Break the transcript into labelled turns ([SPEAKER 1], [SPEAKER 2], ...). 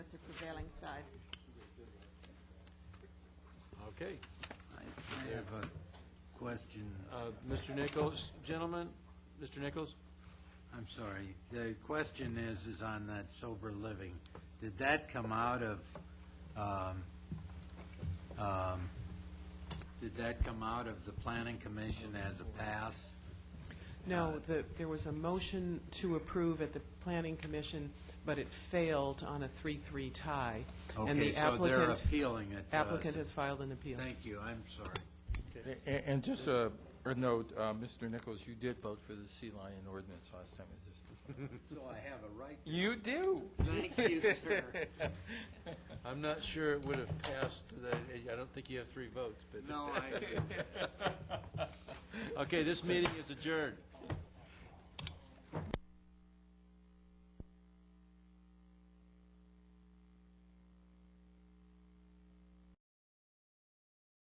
[SPEAKER 1] prevailing side.
[SPEAKER 2] Okay.
[SPEAKER 3] I I have a question.
[SPEAKER 2] Uh, Mr. Nichols, gentlemen, Mr. Nichols?
[SPEAKER 3] I'm sorry. The question is, is on that sober living. Did that come out of, um, um, did that come out of the planning commission as a pass?
[SPEAKER 4] No, the, there was a motion to approve at the planning commission, but it failed on a 3-3 tie. And
[SPEAKER 3] Okay,
[SPEAKER 4] the
[SPEAKER 3] so they're
[SPEAKER 4] applicant-
[SPEAKER 3] appealing it to us.
[SPEAKER 4] Applicant has filed an appeal.
[SPEAKER 3] Thank you, I'm sorry.
[SPEAKER 5] A- And just a a note, uh, Mr. Nichols, you did vote for the sea lion ordinance last time. Is this-
[SPEAKER 3] So I have a right.
[SPEAKER 5] You do?
[SPEAKER 3] Thank you, sir.
[SPEAKER 2] I'm not sure it would have passed, that- I don't think you have three votes, but,
[SPEAKER 3] No, I,
[SPEAKER 2] okay, this meeting is adjourned.